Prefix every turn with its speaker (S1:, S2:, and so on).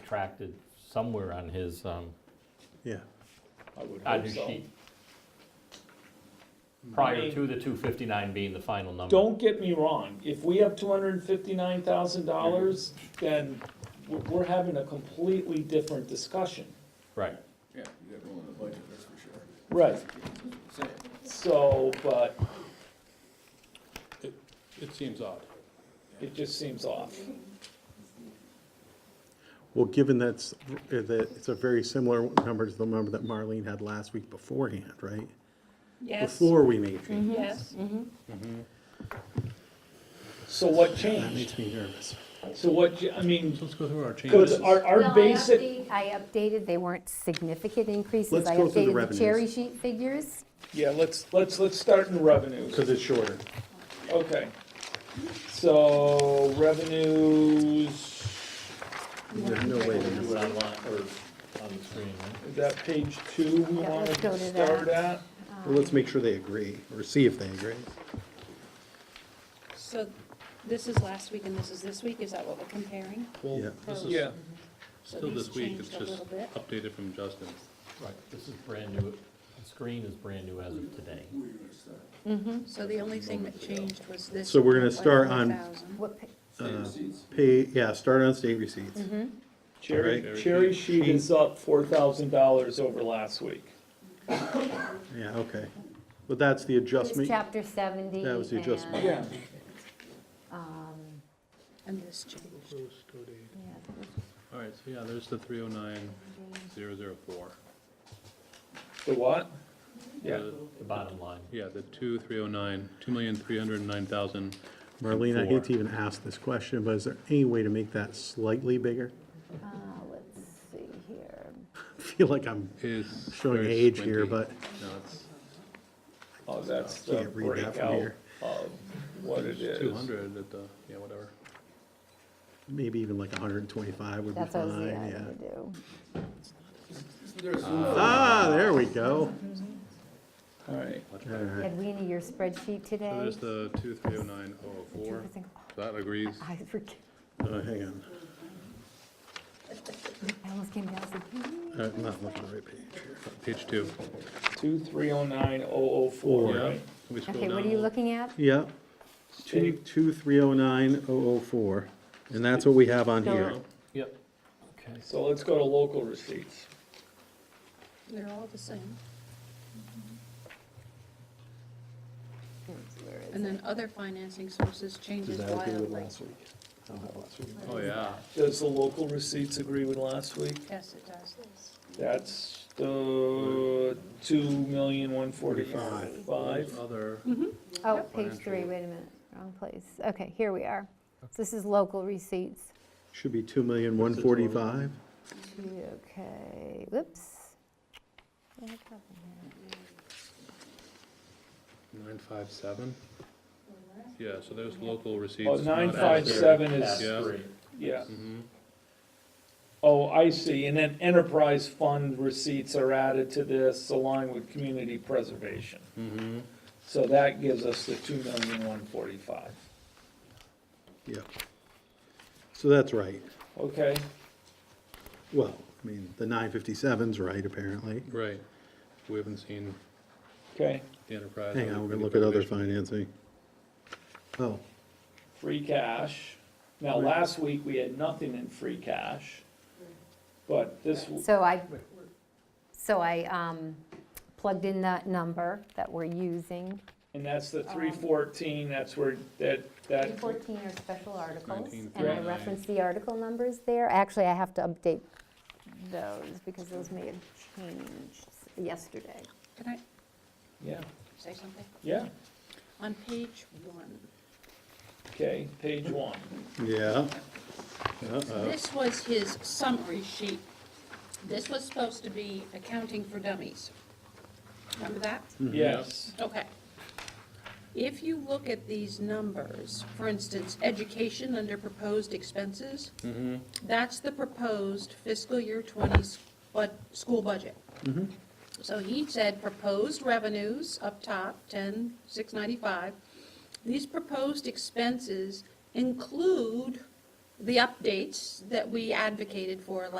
S1: subtracted somewhere on his, um,
S2: Yeah,
S3: I would
S1: on
S3: hope
S1: his
S3: so.
S1: sheet. Prior to the two fifty-nine being the final number.
S3: Don't get me wrong, if we have two hundred and fifty-nine thousand dollars, then we're, we're having a completely different discussion.
S1: Right,
S4: Yeah, you got room in the budget, that's for sure.
S3: Right.
S4: Same.
S3: So, but
S5: It seems odd.
S3: it just seems off.
S2: well, given that's, that it's a very similar number to the number that Marlene had last week beforehand, right?
S6: Yes,
S2: Before we made
S7: Mm-hmm.
S2: changes,
S6: yes.
S3: So what
S2: that
S3: changed?
S2: makes me nervous.
S3: So what, ch- I mean,
S5: So let's go through our
S3: cause
S5: changes.
S3: our,
S7: Well,
S3: our
S7: I
S3: basic,
S7: update- I updated, they weren't significant increases.
S2: Let's go through the
S7: I updated the cherry
S2: revenues.
S7: sheet figures.
S2: Yeah, let's.
S3: let's, let's start in revenues,
S2: Because it's shorter.
S3: okay. So revenues,
S2: There's no way. to do it.
S1: on the screen, right?
S3: is that page two we
S7: Yeah,
S3: wanted
S7: let's go
S3: to
S7: to
S3: start at?
S7: that.
S2: Well, Let's make sure they agree, or see if they agree.
S6: So this is last week and this is this week, is that what we're comparing?
S5: Well,
S2: Yeah.
S5: This is
S3: Yeah,
S6: So
S5: still
S6: these
S5: this week, it's
S6: changed a
S5: just
S6: little bit.
S5: updated from Justin.
S1: Right, this is brand new, the screen is brand new as of today.
S3: Mm-hmm.
S6: So the only thing that changed was this.
S2: So we're gonna start on-
S6: 1,000.
S7: What pa-
S4: Same receipts.
S2: Pay, yeah, start on state receipts.
S3: cherry,
S5: Alright.
S3: cherry sheet is up four thousand dollars over last week.
S7: Mm-hmm.
S2: Yeah, okay. But that's the
S7: It was
S2: adjustment,
S7: chapter 70.
S2: That was the adjustment.
S7: and,
S3: Yeah.
S7: um,
S6: And this changed.
S7: yeah,
S5: All right, so yeah, there's the three oh nine, zero zero four.
S3: The what? Yeah.
S1: The bottom line.
S5: Yeah, the two, three oh nine, two million, three hundred and nine thousand.
S2: Marlene, I hate to even ask this question, but is there any way to make that slightly bigger?
S7: uh, Let's see here.
S2: I feel like I'm
S5: Is.
S2: showing
S5: very
S2: age here,
S5: squinty.
S2: but
S5: No, it's
S3: Oh, that's the
S2: can't read that from
S3: breakout
S2: here.
S3: of what it is.
S5: two hundred at the, yeah, whatever.
S2: Maybe even like hundred and twenty-five would be
S7: That's what I was
S2: fine,
S7: yeah, I'm
S2: yeah.
S7: gonna do.
S4: Isn't there a Zoom for
S2: Ah, there we go.
S3: All right,
S5: Much
S2: All
S5: better.
S2: right.
S7: Had we in your spreadsheet today?
S5: So there's the two, three oh nine, oh oh four.
S7: I think- oh,
S5: That agrees.
S7: I forget-
S2: Oh, hang on.
S7: I almost came down, I said, "Hmm."
S2: Uh, I'm not looking at the right page here.
S5: Page two.
S3: two, three oh nine, oh, oh, four,
S5: Yeah.
S3: right?
S5: Can we scroll
S7: okay, what
S5: down
S7: are
S5: a
S7: you
S5: little?
S7: looking at?
S2: Yeah, two,
S3: Take-
S2: two, three oh nine, oh oh four, and that's what we have on here.
S7: So-
S1: Yep. Okay,
S3: So let's go to local receipts.
S6: They're all the same.
S7: Where is
S6: And
S7: it?
S6: then other financing sources changes wildly.
S2: week? I don't have last week.
S5: Oh, yeah.
S3: Does the local receipts agree with last week?
S6: Yes, it does.
S3: That's the two million, one
S2: Forty-five.
S3: forty-five.
S5: Other,
S7: Oh, page three,
S5: Financial.
S7: wait a minute, wrong place. Okay, here we are. So This is local receipts.
S2: Should be two million, one forty-five.
S7: Two, Okay, whoops. What happened here?
S5: nine five seven? Yeah, so there's local receipts.
S3: Oh,
S5: not
S3: nine five
S5: added.
S3: seven is,
S5: Yeah.
S3: yeah.
S5: Mm-hmm,
S3: Oh, I see, and then enterprise fund receipts are added to this along with community preservation.
S5: Mhm.
S3: So that gives us the two million, one forty-five,
S2: Yeah. So that's right.
S3: okay?
S2: Well, I mean, the nine fifty-seven's right, apparently.
S5: Right. We haven't seen
S3: Okay,
S5: the enterprise.
S2: Hang on,
S5: or
S2: we're
S5: the
S2: gonna look at other
S5: preservation.
S2: financing. Oh,
S3: free cash. Now, last week, we had nothing in free cash, but this, w-
S7: So I, so I um, plugged in that number that we're using.
S3: and that's the three fourteen, that's where, that, that,
S7: 14 are special articles,
S5: 19,
S7: and I
S5: right.
S7: referenced the article numbers there. Actually, I have to update those because those may have changed yesterday.
S6: Can I
S3: yeah,
S6: say something?
S3: yeah,
S6: On page one,
S3: okay, page one.
S2: yeah. Uh-oh.
S6: This was his summary sheet. This was supposed to be accounting for dummies. Remember that?
S3: Yes,
S6: Okay. If you look at these numbers, for instance, education under proposed expenses, that's the proposed fiscal year 20 s- bud school budget. So he said proposed revenues up top, 10,695. These proposed expenses include the updates that we advocated for